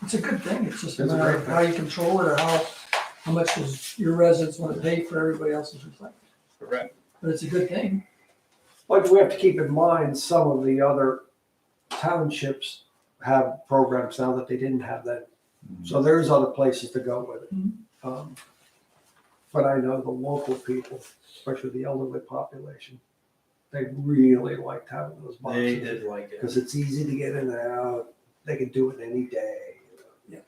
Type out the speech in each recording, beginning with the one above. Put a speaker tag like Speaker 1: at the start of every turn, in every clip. Speaker 1: it's a good thing, it's just a
Speaker 2: It's a
Speaker 1: matter
Speaker 2: great
Speaker 1: of how you control it or how, how much does your residents wanna pay for everybody else's reflector.
Speaker 3: Correct.
Speaker 1: But it's a good thing,
Speaker 2: But we have to keep in mind, some of the other townships have programs now that they didn't have that.
Speaker 3: Mm-hmm.
Speaker 2: So there's other places to go with it.
Speaker 1: Mhm.
Speaker 2: Um, But I know the local people, especially the elderly population, they really liked having those
Speaker 3: They
Speaker 2: boxes.
Speaker 3: did like it.
Speaker 2: Because it's easy to get in and out, they can do it any day. you know.
Speaker 1: Yeah.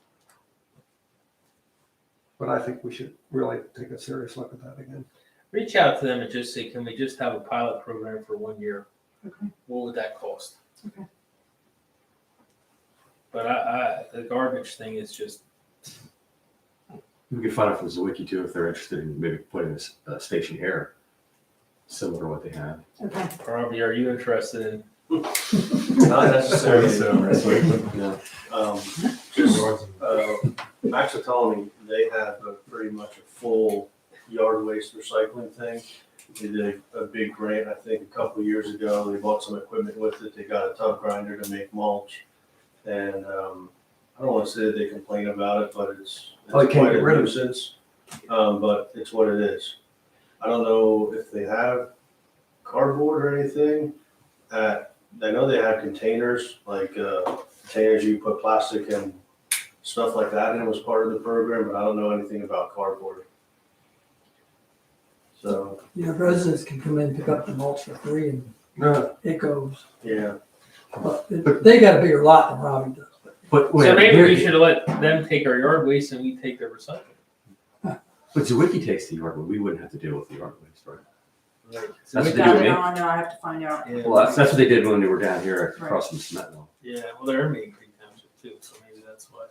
Speaker 2: But I think we should really take a serious look at that again.
Speaker 4: Reach out to them and just say, can we just have a pilot program for one year?
Speaker 5: Okay.
Speaker 4: What would that cost?
Speaker 5: Okay.
Speaker 4: But I, I, the garbage thing is just,
Speaker 6: We can find out from Zwicky too if they're interested in maybe putting a, s- a station here, similar to what they have.
Speaker 5: Okay.
Speaker 4: Robbie, are you interested in?
Speaker 7: Not necessarily so,
Speaker 6: Yeah.
Speaker 7: Um, just, uh, Max had told me they have a pretty much a full yard waste recycling thing. They did a, a big grant, I think, a couple of years ago. They bought some equipment with it. They got a tub grinder to make mulch. And, um, I don't wanna say that they complain about it, but it's.
Speaker 2: Oh, they can't
Speaker 7: it's quite
Speaker 2: get
Speaker 7: a
Speaker 2: rid of it.
Speaker 7: nuisance, Um, but it's what it is. I don't know if they have cardboard or anything. Uh, I know they have containers, like, uh, containers you put plastic and stuff like that in was part of the program, but I don't know anything about cardboard. So,
Speaker 1: you know, residents can come in, pick up the mulch for free and
Speaker 2: No,
Speaker 1: it goes,
Speaker 7: yeah,
Speaker 1: but they got a bigger lot than Robbie does.
Speaker 6: But wait,
Speaker 4: So maybe we
Speaker 6: here-
Speaker 4: should let them take our yard waste and we take their recycling.
Speaker 6: But Zwicky takes the yard, but we wouldn't have to deal with the yard waste, right?
Speaker 4: So
Speaker 6: That's
Speaker 4: we
Speaker 6: what
Speaker 4: got-
Speaker 6: they do,
Speaker 5: No, no, I have to find out.
Speaker 4: Yeah.
Speaker 6: Well, that's, that's what they did when they were down here across from Smetville.
Speaker 4: Yeah, well, they're in Main Creek Township too, so maybe that's why.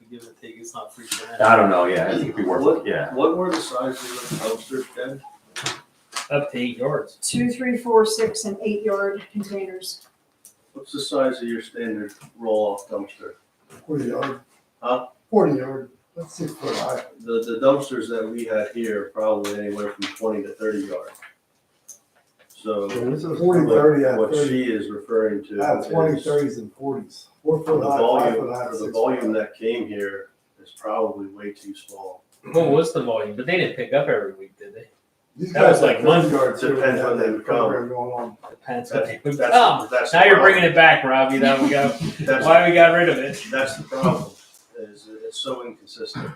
Speaker 4: We give it a take, it's not free for them.
Speaker 6: I don't know, yeah, I think it'd be worth it, yeah.
Speaker 7: what were the sizes of the dumpsters then?
Speaker 4: Up to eight yards.
Speaker 5: Two, three, four, six, and eight yard containers.
Speaker 7: What's the size of your standard roll-off dumpster?
Speaker 8: Forty yard.
Speaker 7: Huh?
Speaker 8: Forty yard, that's six foot high.
Speaker 7: The, the dumpsters that we had here probably anywhere from twenty to thirty yard. So.
Speaker 8: Forty,
Speaker 7: what-
Speaker 8: thirty, yeah,
Speaker 7: What
Speaker 8: thirty.
Speaker 7: she is referring to.
Speaker 8: I have twenty,
Speaker 7: is
Speaker 8: thirties, and forties. Four
Speaker 7: For
Speaker 8: foot
Speaker 7: the
Speaker 8: high, five
Speaker 7: volume,
Speaker 8: foot high,
Speaker 7: for
Speaker 8: six
Speaker 7: the
Speaker 8: foot
Speaker 7: volume
Speaker 8: high.
Speaker 7: that came here is probably way too small.
Speaker 4: What was the volume? But they didn't pick up every week, did they?
Speaker 8: These
Speaker 4: that was
Speaker 8: guys
Speaker 4: like
Speaker 8: have
Speaker 4: one-
Speaker 8: 30 yards here,
Speaker 7: Depends
Speaker 8: they
Speaker 7: on
Speaker 8: have
Speaker 7: them
Speaker 8: a program Going on.
Speaker 4: Depends.
Speaker 7: That's-
Speaker 4: Okay, we-
Speaker 7: that's-
Speaker 4: Oh,
Speaker 7: that's the
Speaker 4: now you're
Speaker 7: problem.
Speaker 4: bringing it back, Robbie. Now we got,
Speaker 7: That's-
Speaker 4: why we got rid of it.
Speaker 7: That's the problem, is it's so inconsistent.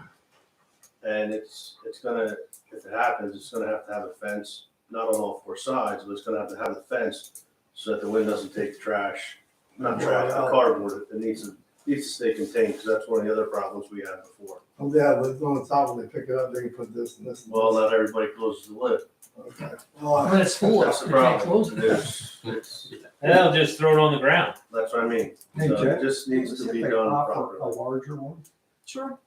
Speaker 7: And it's, it's gonna, if it happens, it's gonna have to have a fence, not on all four sides, but it's gonna have to have a fence so that the wind doesn't take the trash, not trash, the cardboard, it needs to, needs to stay contained, because that's one of the other problems we had before.
Speaker 8: Oh, Yeah, but it's on the top, when they pick it up, they can put this and this and
Speaker 7: Well,
Speaker 8: this.
Speaker 7: not everybody closes the lid.
Speaker 8: Okay. Well, I-
Speaker 1: When it's full,
Speaker 7: That's
Speaker 1: you
Speaker 7: the
Speaker 1: can't
Speaker 7: problem.
Speaker 1: close it.
Speaker 7: There's- it's-
Speaker 4: And they'll just throw it on the ground.
Speaker 7: That's what I mean.
Speaker 2: Hey,
Speaker 7: So
Speaker 2: Jack,
Speaker 7: it just uh, needs
Speaker 2: see
Speaker 7: to
Speaker 2: if
Speaker 7: be
Speaker 2: they
Speaker 7: done
Speaker 2: offer A
Speaker 7: properly.
Speaker 2: larger one,
Speaker 5: Sure.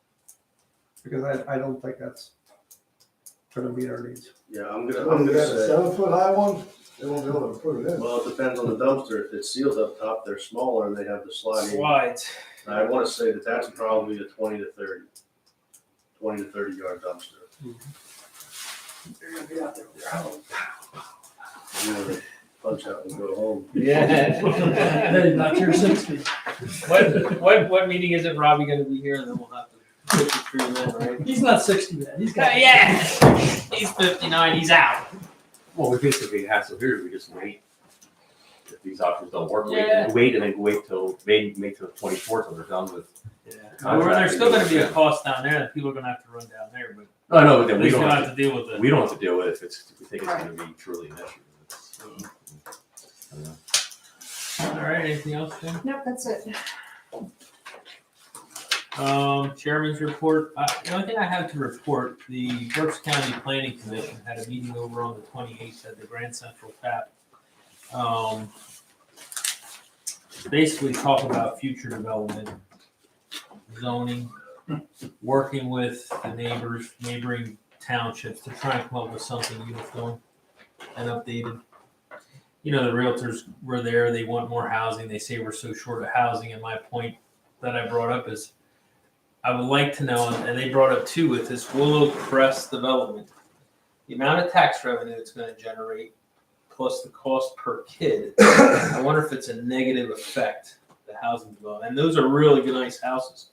Speaker 2: because I, I don't think that's gonna meet our needs.
Speaker 7: Yeah, I'm gonna,
Speaker 8: If
Speaker 7: I'm gonna
Speaker 8: you got a
Speaker 7: say,
Speaker 8: seven foot high one, they won't be able to put it in.
Speaker 7: well, it depends on the dumpster. If it's sealed up top, they're smaller and they have the sliding
Speaker 4: Slides.
Speaker 7: I want to say that that's probably a twenty to thirty, twenty to thirty yard dumpster.
Speaker 1: They're gonna be out there with their house.
Speaker 7: I'm gonna Punch out and go home.
Speaker 4: Yeah.
Speaker 1: Hey, not your sixty.
Speaker 4: what, what, what meeting is it Robbie gonna be here and then we'll have to put you through then, right?
Speaker 1: He's not sixty yet. He's got.
Speaker 4: Yeah, he's fifty-nine, he's out.
Speaker 6: Well, we basically have, so here we just wait. If these options don't work,
Speaker 4: Yeah.
Speaker 6: wait, wait and then wait till, maybe make till twenty-fourth till they're done with.
Speaker 4: Well, There's still gonna be a cost down there that people are gonna have to run down there, but
Speaker 6: Oh, No, no, but
Speaker 4: at
Speaker 6: then we
Speaker 4: least we
Speaker 6: don't
Speaker 4: don't
Speaker 6: have to
Speaker 4: have to deal with it.
Speaker 6: We don't have to deal with it if it's, if we think it's gonna be truly an issue. It's- I don't know.
Speaker 4: All right, anything else, Jim?
Speaker 5: Nope, that's it.
Speaker 4: Um, chairman's report, uh, the only thing I have to report, the Berks County Planning Commission had a meeting over on the twenty-eighth at the Grand Central Tap. Um, basically talk about future development, zoning, working with the neighbors, neighboring townships to try and come up with something uniform and updated. You know, the realtors were there, they want more housing, they say we're so short of housing, and my point that I brought up is I would like to know, and they brought up too with this Willow Crest development, the amount of tax revenue it's going to generate plus the cost per kid. I wonder if it's a negative effect the housing development. And those are really good, nice houses.